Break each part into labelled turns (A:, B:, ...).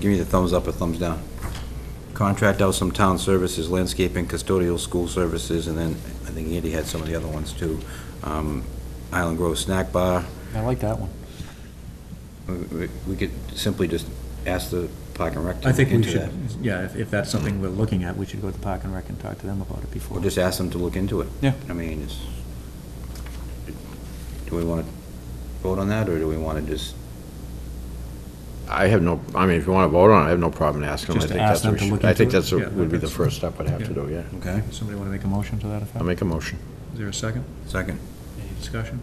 A: Give me the thumbs up or thumbs down. Contract out some town services, landscaping, custodial, school services, and then I think Andy had some of the other ones too. Um, Island Grove Snack Bar,
B: I like that one.
A: We- we we could simply just ask the Park and Rec to
B: I
A: look
B: think we
A: into
B: should,
A: that.
B: yeah, if, if that's something we're looking at, we should go to Park and Rec and talk to them about it before.
A: Or just ask them to look into it.
B: Yeah.
A: I mean, it's, do we want to vote on that, or do we want to just,
C: I have no, I mean, if you want to vote on it, I have no problem asking them. I
B: Just
C: think
B: ask
C: that's
B: them
C: what we
B: to
C: should-
B: look
C: I think
B: into it?
C: that's, what
B: Yeah,
C: would be the
B: that's-
C: first step I'd have to
B: yeah.
C: do, yeah.
A: okay,
B: Somebody want to make a motion to that effect?
C: I'll make a motion.
B: Is there a second?
A: second?
B: Any discussion?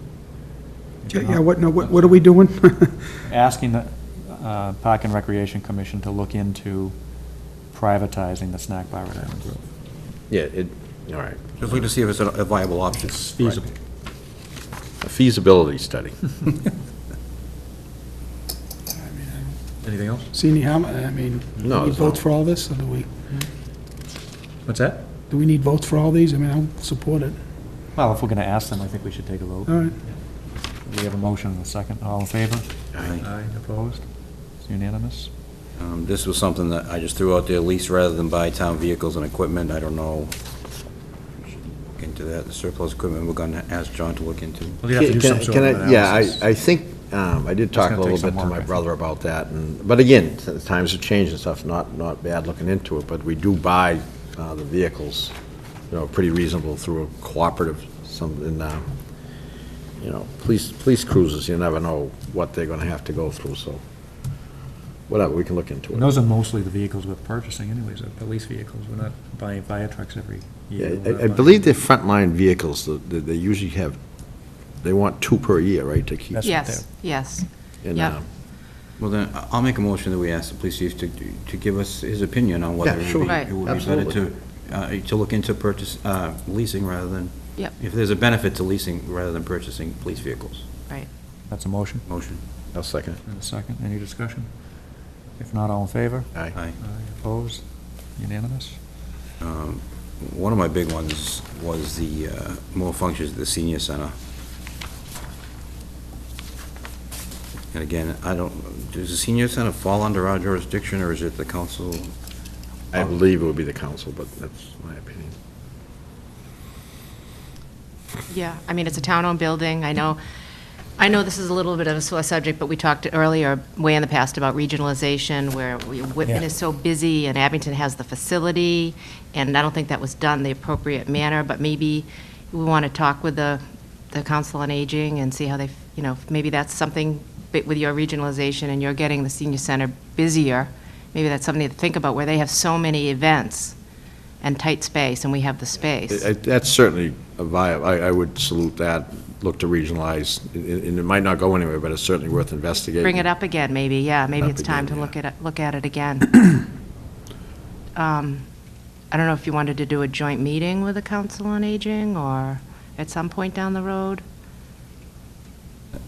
D: Yeah, yeah, what, no, what what are we doing?
B: Asking the uh, Park and Recreation Commission to look into privatizing the snack bar at Island Grove.
C: Yeah, it, all right.
A: Just look to see if it's a viable option.
B: It's feasible.
C: A feasibility study.
B: Anything else?
D: Senior Hamlet, I mean, do
C: No,
D: we need
C: it's not.
D: votes for all this, or do we,
B: What's that?
D: do we need votes for all these? I mean, I'll support it.
B: Well, if we're going to ask them, I think we should take a vote.
D: All right.
B: We have a motion and a second. All in favor?
A: Aye.
B: Aye, opposed? It's unanimous.
A: Um, This was something that I just threw out there, lease rather than buy town vehicles and equipment, I don't know. Look Into that, the surplus equipment, we're gonna ask John to look into.
B: Well, you have to do
C: Can-
B: some
C: can-
B: sort of
C: can I- Yeah,
B: analysis.
C: I, I think, um, I did talk a
B: gonna
C: little
B: take some
C: bit to
B: work, I
C: my
B: think.
C: brother about that, and, but again, t- times have changed and stuff, not, not bad looking into it, but we do buy, uh, the vehicles, you know, pretty reasonable through a cooperative, some, and, um, you know, police, police cruisers, you never know what they're gonna have to go through, so, whatever, we can look into
B: And
C: it.
B: those are mostly the vehicles we're purchasing anyways, are police vehicles. We're not buying fire trucks every year.
C: Yeah,
B: We're not
C: I, I
B: buying-
C: believe they're frontline vehicles, the- the- they usually have, they want two per year, right, to keep.
B: That's what
E: Yes, yes.
C: and,
E: yeah.
C: um,
A: Well, then, I- I'll make a motion that we ask the police chief to, to give us his opinion on whether
C: Yeah,
A: it
C: sure.
A: would be-
E: Right.
A: it would be better to,
C: Absolutely.
A: uh, to look into purchase, uh, leasing rather than.
E: Yep.
A: If there's a benefit to leasing rather than purchasing police vehicles.
B: That's a motion
A: Motion.
C: I'll second it.
B: and a second. Any discussion? If not, all in favor?
C: Aye.
A: Aye.
B: Aye, opposed? Unanimous?
A: Um, One of my big ones was the uh, more functions at the senior center. And again, I don't, does the senior center fall under our jurisdiction, or is it the council?
C: I believe it would be the council, but that's my opinion.
E: Yeah, I mean, it's a town-owned building, I know, I know this is a little bit of a sore subject, but we talked earlier, way in the past, about regionalization, where we- Whitman
B: Yeah.
E: is so busy, and Abington has the facility, and I don't think that was done the appropriate manner, but maybe we want to talk with the, the Council on Aging and see how they, you know, maybe that's something, but with your regionalization and you're getting the senior center busier, maybe that's something to think about, where they have so many events and tight space, and we have the space.
C: I- I- That's certainly a viable, I, I would salute that, look to regionalize, and- and it might not go anywhere, but it's certainly worth investigating.
E: Bring it up again, maybe, yeah, maybe
C: Up
E: it's time to
C: again,
E: look
C: yeah.
E: at, it- look at it again. Um, I don't know if you wanted to do a joint meeting with the Council on Aging, or at some point down the road?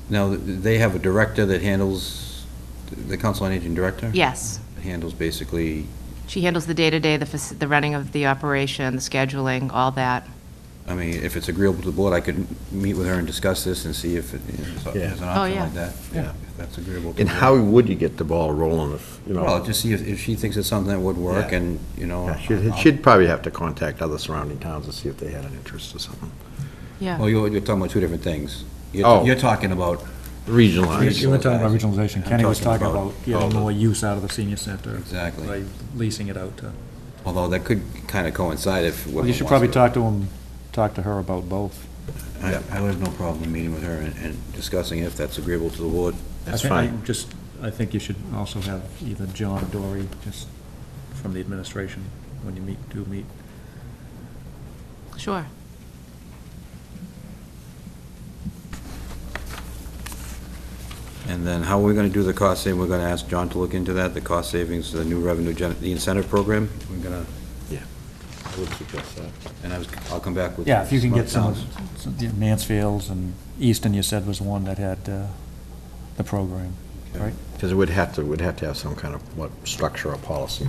A: Now, they have a director that handles, the council on aging director?
E: Yes,
A: Handles basically,
E: she handles the day-to-day, the, faci- the running of the operation, the scheduling, all that.
A: I mean, if it's agreeable to the board, I could meet with her and discuss this and see if it- if there's an
E: Yeah. Oh,
A: option
E: yeah.
A: like that.
C: Yeah.
A: If that's agreeable. to
C: And
A: the
C: how
A: board.
C: would you get the ball rolling if, you
A: Well,
C: know?
A: just see if if she thinks it's something that would work,
C: Yeah.
A: and, you know.
C: Yeah, She'd,
A: I'll-
C: she'd probably have to contact other surrounding towns and see if they had an interest or something.
E: Yeah,
A: Well, Oh, you're, you're talking about two different things. You're,
C: Oh.
A: you're talking about,
C: Regionalize.
B: You were talking about regionalization. Kenny was
A: talking
B: talking
A: about
B: about getting more use out of the senior center.
A: Exactly.
B: By leasing it out to.
A: although that could kind of coincide if.
B: Well, you should probably talk to him, talk to her about both.
A: I, I would have no problem meeting with her and, and discussing if that's agreeable to the board.
C: That's
B: I thi- I
C: fine.
B: Just, I think you should also have either John or Dory, just from the administration, when you meet, do meet.
E: sure.
A: And then how are we gonna do the cost saving? We're gonna ask John to look into that, the cost savings, the new revenue gen, the incentive program? We're gonna,
C: Yeah. I would suggest that.
A: and I was, I'll come back with.
B: Yeah, if you can
A: smart
B: get some, of-
A: towns.
B: some- yeah, Mansfield's and Easton, you said, was one that had uh, the program, right?
C: Because it would have to, would have to have some kind of, what, structure or policy.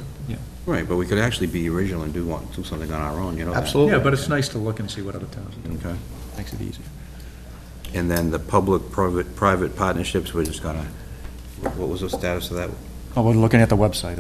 A: Right, but we could actually be original and do want, do something on our own, you know that.
C: Absolutely.
B: Yeah, but it's nice to look and see what other towns are doing.
A: Okay.
B: Makes it easier.
A: And then the public-private, private partnerships, we're just gonna, what was the status of that?
B: Oh, we're looking at the website.